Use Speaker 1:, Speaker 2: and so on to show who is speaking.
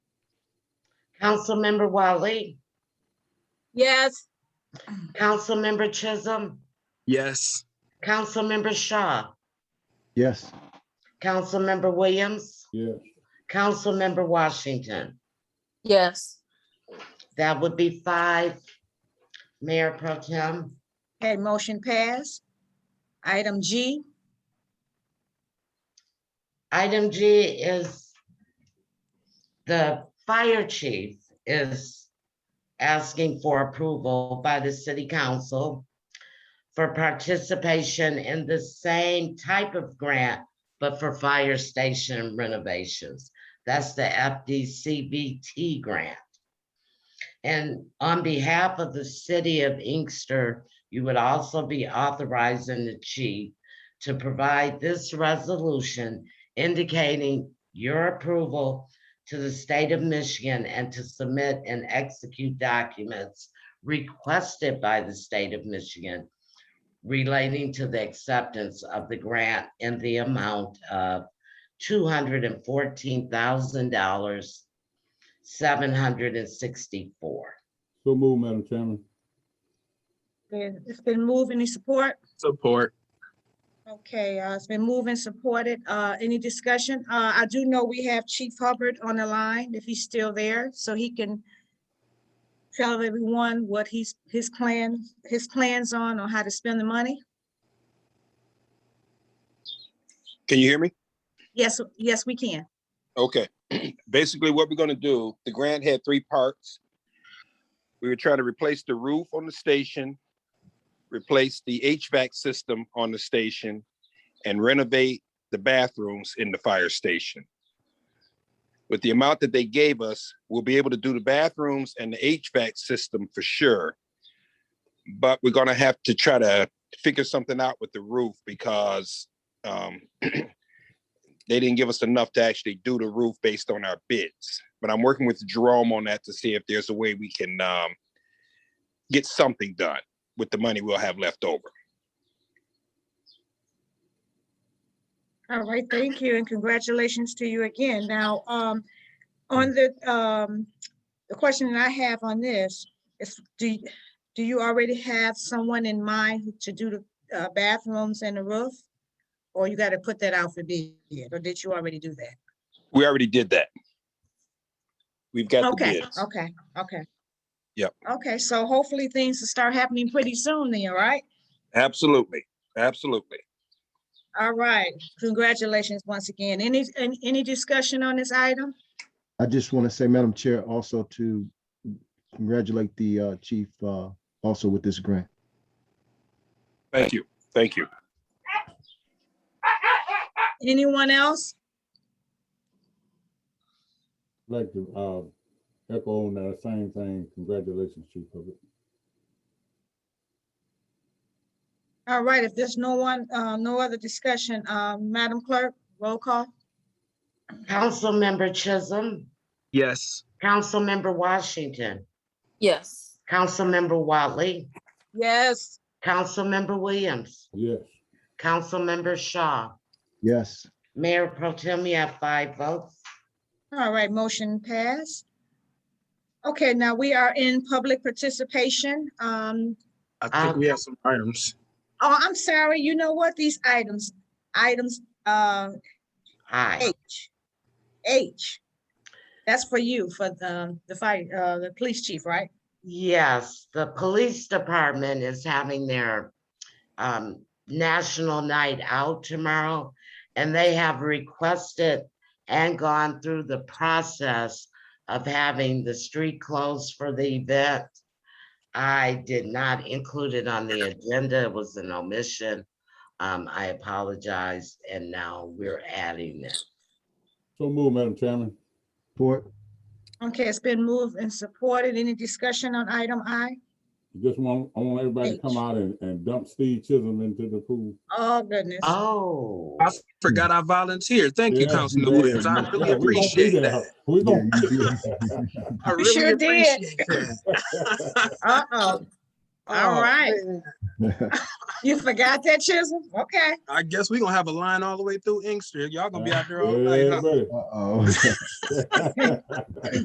Speaker 1: Councilmember Wiley,
Speaker 2: Yes.
Speaker 1: Councilmember Chisholm,
Speaker 3: Yes.
Speaker 1: Councilmember Shaw,
Speaker 4: Yes.
Speaker 1: Councilmember Williams,
Speaker 4: Yes.
Speaker 1: Councilmember Washington.
Speaker 2: Yes.
Speaker 1: That would be five. Mayor Pro Tem,
Speaker 2: Okay, motion passed. Item G,
Speaker 1: item G is the fire chief is asking for approval by the city council for participation in the same type of grant, but for fire station renovations. That's the FDCVT grant. And on behalf of the city of Inkster, you would also be authorizing the chief to provide this resolution indicating your approval to the state of Michigan and to submit and execute documents requested by the state of Michigan relating to the acceptance of the grant in the amount of two hundred and fourteen thousand dollars, seven hundred and sixty-four.
Speaker 4: So move, Madam Chairman.
Speaker 2: it's been moved. Any support?
Speaker 3: Support.
Speaker 2: Okay, uh, it's been moved and supported. Uh, any discussion? Uh, I do know we have Chief Hubbard on the line, if he's still there, so he can tell everyone what he's, his plan, his plans on, on how to spend the money.
Speaker 5: Can you hear me?
Speaker 2: Yes, yes, we can.
Speaker 5: Okay. Basically, what we're gonna do, the grant had three parts. We were trying to replace the roof on the station, replace the HVAC system on the station, and renovate the bathrooms in the fire station. With the amount that they gave us, we'll be able to do the bathrooms and the HVAC system for sure. But we're gonna have to try to figure something out with the roof because um, they didn't give us enough to actually do the roof based on our bids. But I'm working with Jerome on that to see if there's a way we can um, get something done with the money we'll have left over.
Speaker 2: All right, thank you and congratulations to you again. Now, um, on the, um, the question that I have on this is, do, y- do you already have someone in mind to do the uh, bathrooms and the roof? Or you gotta put that out for bid, or did you already do that?
Speaker 5: We already did that. We've got the
Speaker 2: Okay,
Speaker 5: bids.
Speaker 2: okay, okay.
Speaker 5: Yep.
Speaker 2: Okay, so hopefully things will start happening pretty soon then, all right?
Speaker 5: Absolutely, absolutely.
Speaker 2: All right, congratulations once again. Any, an- any discussion on this item?
Speaker 4: I just want to say, Madam Chair, also to congratulate the uh, chief uh, also with this grant.
Speaker 5: Thank you, thank you.
Speaker 2: Anyone else?
Speaker 4: Like to uh, echo on that same thing. Congratulations, Chief Hubbard.
Speaker 2: All right, if there's no one, uh, no other discussion, uh, Madam Clerk, roll call?
Speaker 1: Councilmember Chisholm,
Speaker 3: Yes.
Speaker 1: Councilmember Washington,
Speaker 6: Yes.
Speaker 1: Councilmember Watley,
Speaker 2: Yes.
Speaker 1: Councilmember Williams,
Speaker 4: Yes.
Speaker 1: Councilmember Shaw,
Speaker 4: Yes.
Speaker 1: Mayor Pro Tem, you have five votes.
Speaker 2: All right, motion passed. Okay, now we are in public participation. Um,
Speaker 3: I think
Speaker 1: Um,
Speaker 3: we have some items.
Speaker 2: oh, I'm sorry, you know what? These items, items, uh,
Speaker 1: Aye.
Speaker 2: H. H. That's for you, for the, the fire, uh, the police chief, right?
Speaker 1: Yes, the police department is having their um national night out tomorrow. And they have requested and gone through the process of having the street closed for the event. I did not include it on the agenda. It was an omission. Um, I apologize, and now we're adding it.
Speaker 4: So move, Madam Chairman. Support.
Speaker 2: Okay, it's been moved and supported. Any discussion on item I?
Speaker 7: Just want, I want everybody to come
Speaker 2: H.
Speaker 7: out and, and dump Steve Chisholm into the pool.
Speaker 2: Oh, goodness.
Speaker 1: Oh.
Speaker 3: I forgot I volunteered. Thank you,
Speaker 7: Yeah,
Speaker 3: Councilman
Speaker 7: did.
Speaker 3: Williams. I
Speaker 7: Yeah, we
Speaker 3: really
Speaker 7: gonna be
Speaker 3: appreciate
Speaker 7: there.
Speaker 3: that.
Speaker 7: We gonna
Speaker 4: Yeah, you
Speaker 7: be
Speaker 4: did.
Speaker 7: there.
Speaker 3: I
Speaker 2: sure
Speaker 3: really
Speaker 2: did.
Speaker 3: appreciate that.
Speaker 2: Uh-oh. All right. You forgot that chisel? Okay.
Speaker 3: I guess we gonna have a line all the way through Inkster. Y'all gonna be out there all night, huh?
Speaker 7: Yeah, buddy.
Speaker 4: Uh-oh.